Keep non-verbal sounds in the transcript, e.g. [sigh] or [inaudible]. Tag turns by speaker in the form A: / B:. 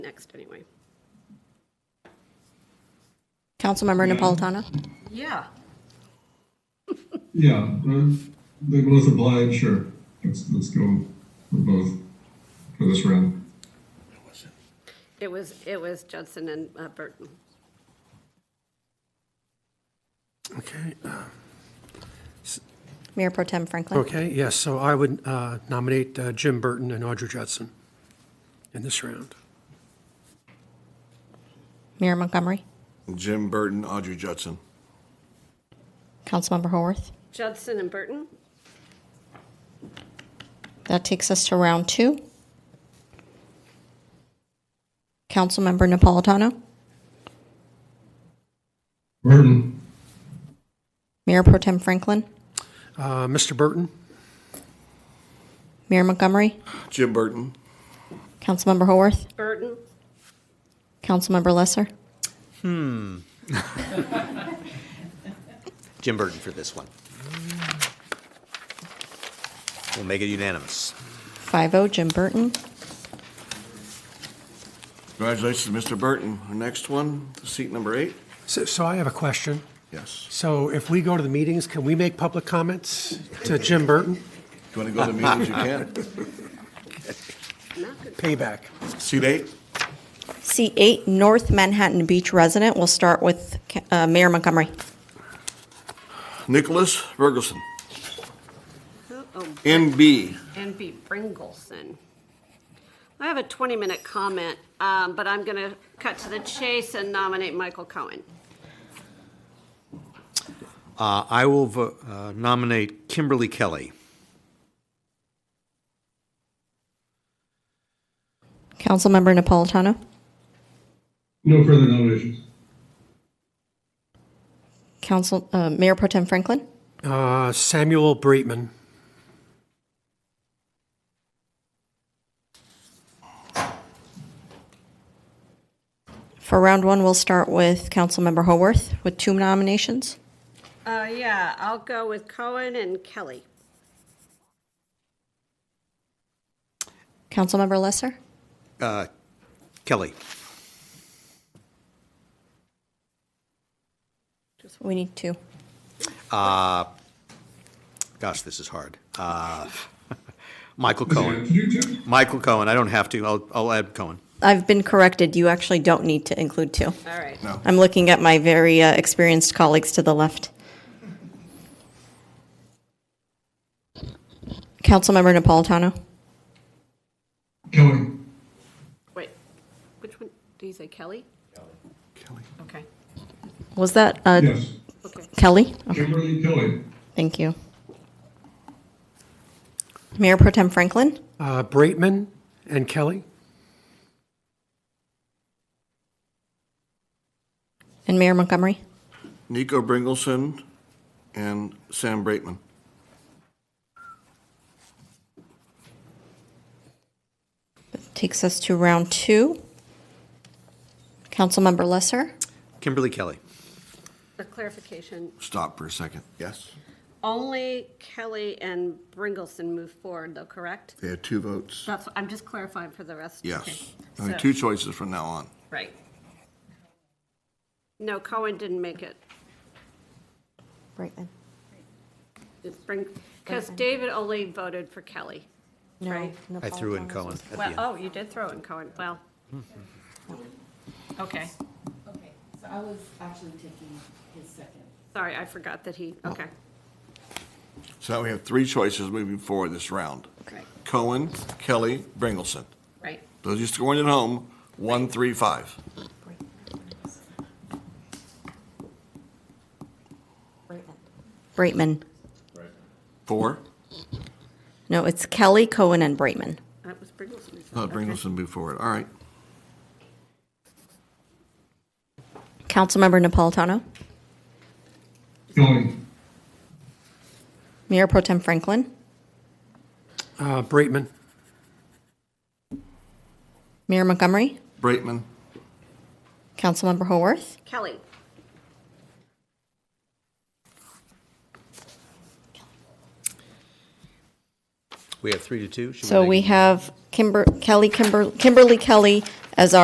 A: next anyway.
B: Councilmember Napolitano?
A: Yeah.
C: Yeah, uh, they both applied, sure. Let's, let's go for both for this round.
A: It was, it was Judson and uh, Burton.
D: Okay, uh,
B: Mayor Pro Tem Franklin?
D: okay, yes, so I would uh, nominate uh, Jim Burton and Audrey Judson in this round.
B: Mayor Montgomery?
E: Jim Burton, Audrey Judson.
B: Councilmember Haworth?
A: Judson and Burton?
B: That takes us to round two. Councilmember Napolitano?
C: Burton,
B: Mayor Pro Tem Franklin?
D: Uh, Mr. Burton,
B: Mayor Montgomery?
E: Jim Burton,
B: Councilmember Haworth?
A: Burton?
B: Councilmember Lesser?
F: Jim Burton for this one. We'll make it unanimous.
B: 5-0, oh, Jim Burton.
E: congratulations, Mr. Burton. Our next one, seat number eight.
D: so so I have a question.
E: Yes.
D: So if we go to the meetings, can we make public comments to Jim Burton?
E: If you want to go to meetings, you can.
D: Payback.
E: Seat eight,
B: C8, North Manhattan Beach resident. We'll start with uh, Mayor Montgomery.
E: Nicholas Ferguson,
A: Oh,
E: NB.
A: and B. Bringleson. I have a 20-minute comment, um, but I'm going to cut to the chase and nominate Michael Cohen.
F: Uh, I will vo- uh, nominate Kimberly Kelly.
B: Councilmember Napolitano?
C: no further nominations.
B: Council, uh, Mayor Pro Tem Franklin?
D: Uh, Samuel Breitman.
B: For round one, we'll start with Councilmember Haworth with two nominations.
A: Uh, Yeah, I'll go with Cohen and Kelly.
B: Councilmember Lesser?
F: Uh, Kelly.
B: We need two.
F: Gosh, this is hard. Uh, [laughs] Michael
C: [laughs] Could
F: Cohen.
C: you do-
F: Michael Cohen. I don't have to. I'll, I'll add Cohen.
B: I've been corrected. You actually don't need to include two.
A: All right.
B: I'm looking at my very uh, experienced colleagues to the left. Councilmember Napolitano?
C: Cohen,
A: Wait, which one, did you say Kelly?
E: Kelly.
A: Okay,
B: Was that uh,
C: yes.
A: okay.
B: Kelly?
C: Kimberly Kelly,
B: Thank you. Mayor Pro Tem Franklin?
D: Uh, Breitman and Kelly?
B: And Mayor Montgomery?
E: Nico Bringleson, and Sam Braitman.
B: Takes us to round two. Councilmember Lesser?
F: Kimberly Kelly.
A: A clarification,
E: Stop for a second. Yes.
A: only Kelly and Bringleson move forward, though, correct?
E: They had two votes.
A: That's, I'm just clarifying for the rest. Okay.
E: Yes. Only
A: So-
E: two choices from now on.
A: Right. No, Cohen didn't make it.
B: Right then.
A: Because David only voted for Kelly.
B: No.
A: Right.
F: I threw in Cohen at the
A: Well,
F: end.
A: oh, you did throw in Cohen, [laughs] well. Okay,
G: Okay, so I was actually taking his second.
A: sorry, I forgot that he,
F: Oh.
A: okay.
E: So now we have three choices moving forward this round.
A: Right,
E: Cohen, Kelly, Bringleson.
A: right.
E: Those of you scoring at home, one, three, five.
B: Breitman.
E: Four.
B: No, it's Kelly, Cohen, and Breitman.
A: That was Bringleson. who said-
E: Thought
A: okay.
E: Bringleson moved forward. All right.
B: Councilmember Napolitano.
C: Cohen,
B: Mayor Pro Tem Franklin.
D: Uh, Breitman.
B: Mayor Montgomery.
E: Braitman,
B: Councilmember Haworth.
A: Kelly,
F: We have three to two. Should
B: So
F: make it
B: we have Kimber, Kelly, Kimber, Kimberly Kelly as our.